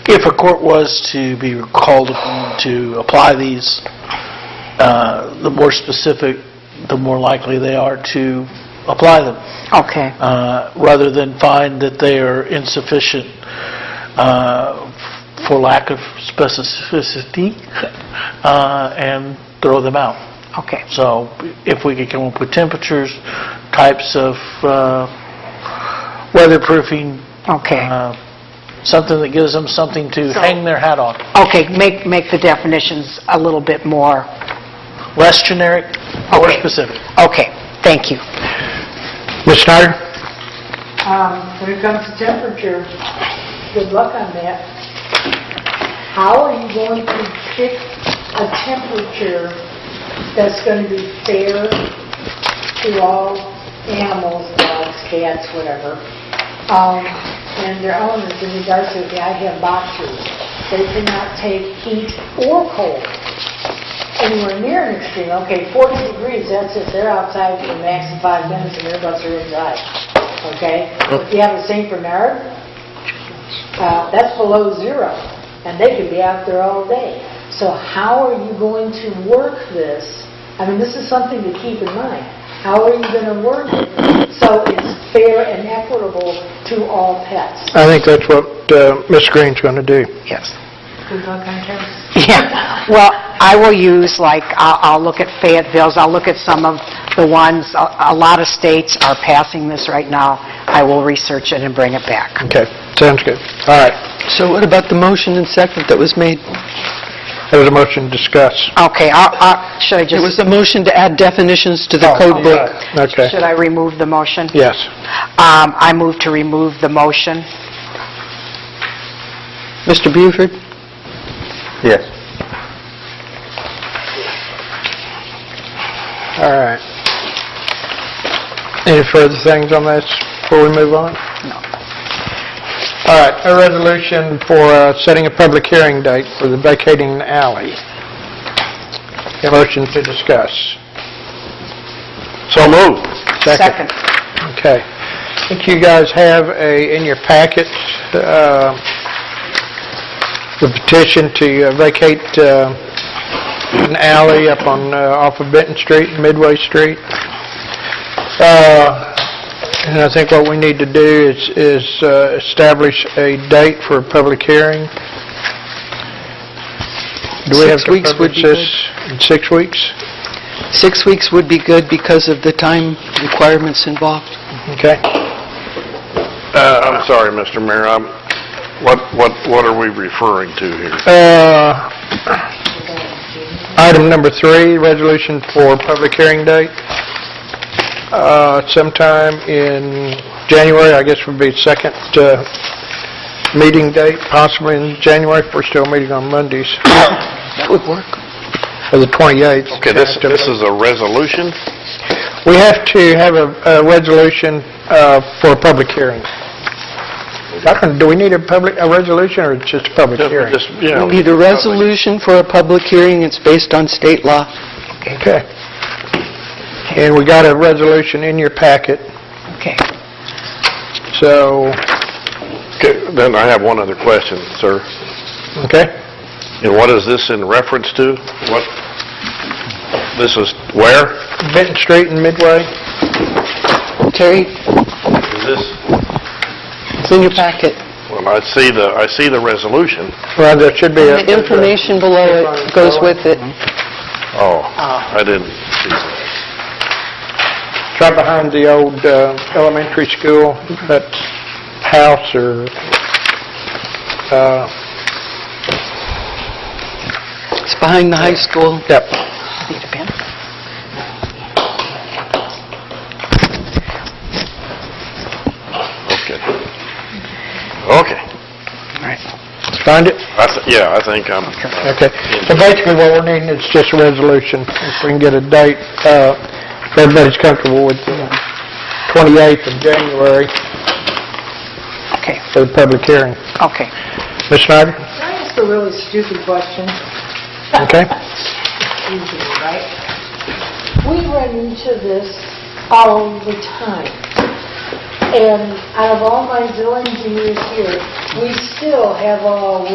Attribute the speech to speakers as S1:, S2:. S1: if a court was to be called upon to apply these, uh, the more specific, the more likely they are to apply them,
S2: Okay,
S1: uh, rather than find that they are insufficient uh, for lack of specificity uh, and throw them out.
S2: okay.
S1: So if we could come up with temperatures, types of uh, weatherproofing,
S2: Okay,
S1: uh, something that gives them something to
S2: So-
S1: hang their hat on.
S2: okay, make, make the definitions a little bit more,
S1: Less generic, more
S2: Okay.
S1: specific.
S2: okay, thank you.
S3: Ms. Snyder?
S4: Um, When it comes to temperature, good luck on that. How are you going to pick a temperature that's going to be fair to all animals, dogs, cats, whatever, um, and their owners in regards to, I have boxers, they cannot take heat or cold anywhere near an extreme. Okay, 40 degrees, that's it, they're outside for the max of five minutes and their butts are inside, okay? If you have a St. Bernard, uh, that's below zero, and they could be out there all day. So how are you going to work this? I mean, this is something to keep in mind. How are you going to work it so it's fair and equitable to all pets?
S3: I think that's what uh, Ms. Green's going to do.
S2: Yes.
S4: Good luck on terms.
S2: Yeah, well, I will use, like, I'll, I'll look at Fayetteville's, I'll look at some of the ones, a, a lot of states are passing this right now. I will research it and bring it back.
S3: Okay, sounds good. All right,
S5: So what about the motion and second that was made?
S3: there's a motion to discuss.
S2: Okay, I'll, I'll, should I
S5: It was
S2: just,
S5: a motion to add definitions to
S3: Oh.
S5: the code book.
S3: Okay,
S2: should I remove the motion?
S3: yes.
S2: Um, I move to remove the motion.
S5: Mr. Buford?
S3: Yes. All right. Any further things on this before we move on?
S2: No.
S3: All right, a resolution for uh, setting a public hearing date for the vacating alley. A motion to discuss. So moved.
S2: Second.
S3: Okay. I think you guys have a, in your packet, uh, the petition to uh, vacate uh, an alley up on, uh, off of Benton Street, and Midway Street. Uh, And I think what we need to do is, is uh, establish a date for a public hearing. Do we have
S5: Six
S3: to
S5: weeks would
S3: publish
S5: be
S3: this in six weeks?
S5: Six weeks would be good because of the time requirements involved.
S3: Okay.
S6: Uh, I'm sorry, Mr. Mayor, I'm, what, what, what are we referring to here?
S3: Uh, Item number three, resolution for public hearing date, Uh, sometime in January, I guess would be second uh, meeting date, possibly in January, if we're still meeting on Mondays,
S5: That would work.
S3: or the 28th.
S6: Okay, this, this is a resolution?
S3: We have to have a a resolution uh, for a public hearing. I don't- Do we need a public, a resolution, or just a public hearing?
S6: Just, you know,
S5: We need a resolution for a public hearing. It's based on state law.
S3: Okay. And we got a resolution in your packet,
S2: Okay.
S3: so,
S6: Okay, Then I have one other question, sir.
S3: okay?
S6: And what is this in reference to? What, this is where?
S3: Benton Street and Midway?
S5: Terry,
S6: Is this,
S5: it's in your packet.
S6: well, I see the, I see the resolution.
S3: Well, there should be a...
S5: The information below it goes with it.
S6: Oh,
S5: Ah.
S6: I didn't see that.
S3: Try behind the old uh, elementary school, that house or, uh,
S5: It's behind the high school.
S3: yep.
S6: Okay. Okay.
S3: Find it?
S6: I, th- yeah, I think I'm,
S3: Okay. So basically, what we're needing is just a resolution, if we can get a date, uh, if everybody's comfortable with the 28th of January
S2: Okay,
S3: for the public hearing.
S2: okay.
S3: Ms. Snyder?
S4: Can I ask a really stupid question?
S3: Okay?
S4: easy, right? We run into this all the time. And out of all my zillion years here, we still have all